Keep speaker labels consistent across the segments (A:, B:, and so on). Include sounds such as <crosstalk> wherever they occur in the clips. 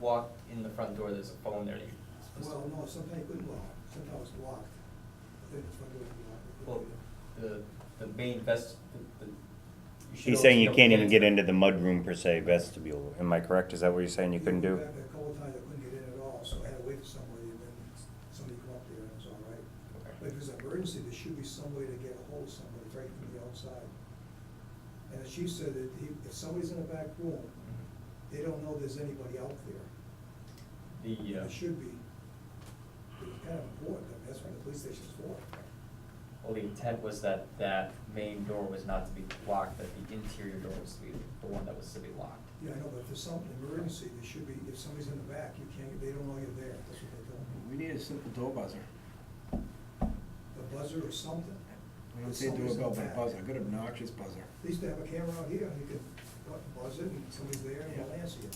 A: walk in the front door, there's a phone there, you're supposed to.
B: Well, no, sometimes I couldn't walk, sometimes I was locked. Then it's when I
A: Well,
B: was locked.
A: the, the main vest, the, the. you should
C: He's
A: always
C: saying you
A: know
C: can't even
A: when
C: get
A: it's-
C: into the mudroom per se vestibule. Am I correct? Is that what you're saying you couldn't do?
B: A couple times I couldn't get in at all, so I had to wait for somebody, and then somebody come up there, and it was all right. But if
A: Okay.
B: it's an emergency, there should be some way to get a hold of somebody right from the outside. And the chief said that he, if somebody's in a back room, they don't know there's anybody out there.
A: The, uh,
B: There should be. It's kind of important, I mean, that's what the police station's for.
A: well, the intent was that that main door was not to be locked, that the interior door was to be the one that was to be locked.
B: Yeah, I know, but if there's some emergency, there should be, if somebody's in the back, you can't, they don't know you're there, that's what they told me.
D: We need a simple door buzzer.
B: A buzzer or something.
D: We don't say doorbell, but a buzzer, a good obnoxious buzzer.
B: At least they have a camera out here, and you can bu- buzz it, and somebody's there, and they'll
D: Yeah.
B: answer you.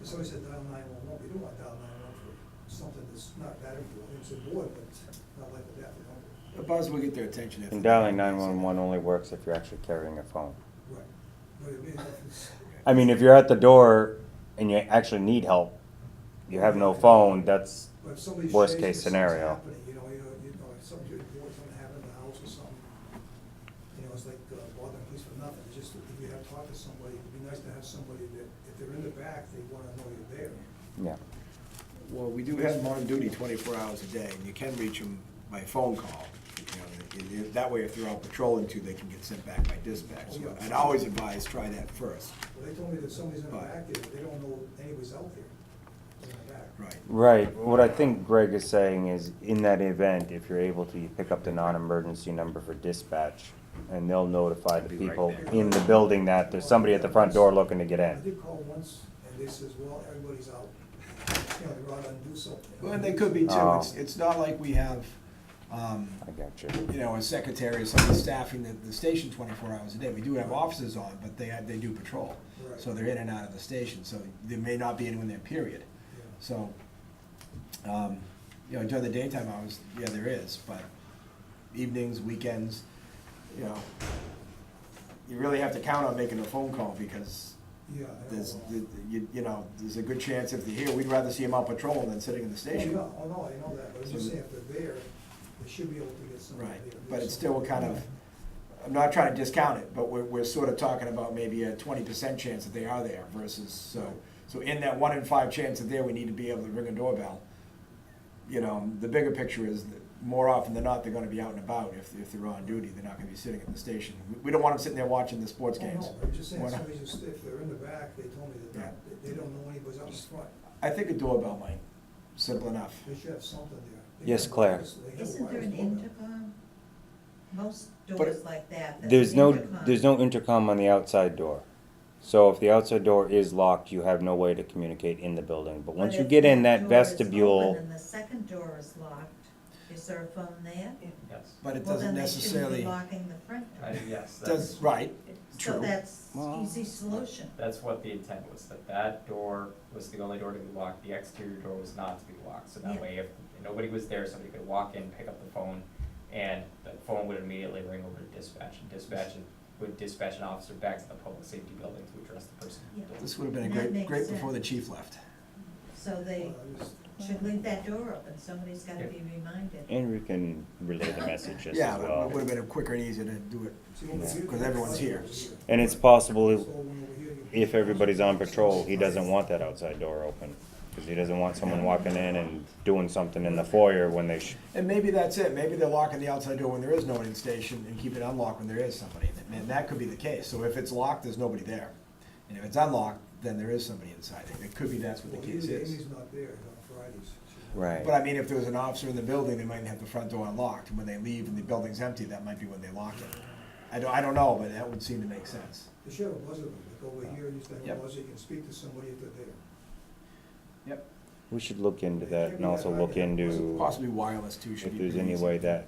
B: If somebody said dial nine one one, we don't want dial nine one one for something that's not that important, it's important, but not like that, you know?
D: A buzzer will get their attention. if
C: And
D: they-
C: dialing nine-one-one only works if you're actually carrying a phone.
B: Right, but it means if it's,
C: I mean, if you're at the door and you actually need help, you have no phone, that's,
B: but if somebody's
C: Worst
B: chasing,
C: case
B: something's
C: scenario.
B: happening, you know, you know, you know, if something important, something happened in the house or something, you know, it's like uh, bothering police for nothing, it's just, if you have to talk to somebody, it'd be nice to have somebody that, if they're in the back, they wanna know you're there.
C: yeah.
D: Well, we do have them on duty twenty-four hours a day, and you can reach them by phone call. You know, and- and That way, if they're out patrolling too, they can get sent back by dispatch. So I'd always advise, try that first.
B: Well, they told me that somebody's in the
D: Right.
B: back there, but they don't know anybody's out there in the back.
D: Right.
C: Right, what I think Greg is saying is, in that event, if you're able to, you pick up the non-emergency number for dispatch, and they'll notify the
E: Be right
C: people
E: there.
C: in the building that there's somebody at the front door looking to get
B: I
C: in.
B: did call once, and they says, well, everybody's out, <laughs> you know, they're out and do something.
D: Well, and they could be too.
C: Oh.
D: It's, it's not like we have, um,
C: I got you.
D: you know, a secretary or someone staffing the, the station twenty-four hours a day. We do have officers on, but they, they do patrol.
B: Right.
D: So they're in and out of the station, so there may not be anyone there, period.
B: Yeah.
D: So, um, you know, during the daytime hours, yeah, there is, but evenings, weekends, you know, you really have to count on making a phone call because
B: Yeah. I don't
D: there's,
B: know.
D: you, you know, there's a good chance if they're here, we'd rather see them out patrolling than sitting in the station.
B: Oh, no, oh, no, I know that, but I'm just saying, if they're there, they should be able to get somebody
D: Right,
B: there. to do
D: but it's still
B: something.
D: kind of, I'm not trying to discount it, but we're, we're sort of talking about maybe a twenty percent chance that they are there versus, so, so in that one in five chance that there, we need to be able to ring a doorbell. You know, the bigger picture is that more often than not, they're gonna be out and about if, if they're on duty, they're not gonna be sitting at the station. We- We don't want them sitting there watching the sports
B: Oh,
D: games.
B: no, but I'm just saying,
D: We're not-
B: somebody just, if they're in the back, they told me that
D: Yeah.
B: they- they don't know anybody's out in front,
D: I think a doorbell might, simple enough.
B: they should have something there. They
C: Yes,
B: have
C: Claire.
B: wires, they have
F: Isn't there
B: wires
F: an
B: going.
F: intercom? Most
D: But-
F: doors like that. that's
C: There's
F: an
C: no,
F: intercom.
C: there's no intercom on the outside door. So if the outside door is locked, you have no way to communicate in the building. But
F: But
C: once you
F: if
C: get in
F: door
C: that
F: is
C: vestibule,
F: open And the second door is locked, is there a phone there?
A: Yes,
D: But it
F: Well,
D: doesn't
F: then they shouldn't be
D: necessarily,
F: Locking the front door.
A: I, yes, that's,
D: does, right,
F: So
D: true.
F: that's
C: Well-
F: easy solution.
A: that's what the intent was, that that door was the only door to be locked, the exterior door was not to be locked. So that
F: Yeah.
A: way, if nobody was there, somebody could walk in, pick up the phone, and the phone would immediately ring over to dispatch, and dispatch would dispatch an officer back to the public safety building to address the person. at the
F: Yeah.
A: door.
D: This would have been a
F: And that
D: great,
F: makes
D: great before the
F: sense.
D: chief left.
F: So they
B: Well, I just-
F: should leave that door open. Somebody's gotta
A: Yeah.
F: be reminded.
C: and we can relay the message just
D: Yeah,
C: as
D: but it would
C: well.
D: have been quicker and easier to do it
B: see, over
C: Yeah.
B: here,
D: Because everyone's here.
C: And it's
B: So
C: possible,
B: when over here, you-
C: if everybody's on patrol, he doesn't want that outside door open. Cause he doesn't want someone walking in and doing something in the foyer when they sh-
D: And maybe that's it, maybe they're locking the outside door when there is no one in station and keep it unlocked when there is somebody, and that could be the case, so if it's locked, there's nobody there. And if it's unlocked, then there is somebody inside, it It could be that's what
B: Well,
D: the
B: here,
D: case is.
B: Amy's not there on Fridays. She's-
C: Right.
D: But I mean, if there was an officer in the building, they might have the front door unlocked, and when they leave and the building's empty, that might be when they lock it. I don't, I don't know, but that would seem to make sense.
B: They should have a buzzer, like over here, you just have a
D: Yep.
B: buzzer, you can speak to somebody if they're there.
D: Yep.
C: we should look into that and also look into
D: Possibly wireless too should
C: if
D: be.
C: there's
D: pretty
C: any
D: easy.
C: way that,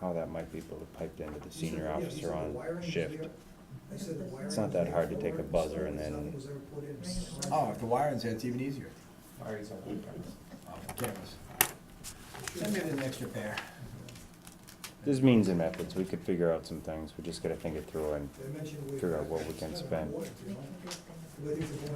C: how that might be able to pipe into the
B: You said-
C: senior
B: yeah, you said
C: officer
B: the
C: on
B: wiring was
C: shift.
B: there. I said the wiring
F: It's
C: not
B: was
C: that
B: there
C: hard to
B: for
C: take a
B: it,
C: buzzer
B: so
C: and then-
B: nothing was ever put in.
F: Bring it
D: Oh, if the wiring's there, it's even easier,
A: Mari's on the cameras.
D: Oh, for cameras. Send me an extra pair.
C: There's means and methods, we could figure out some things, we just gotta think it through and
B: They mentioned we-
C: Figure out what we can
B: it's kinda
C: spend.
B: important, you
F: We
B: know?
F: can do things.
B: Whether it's a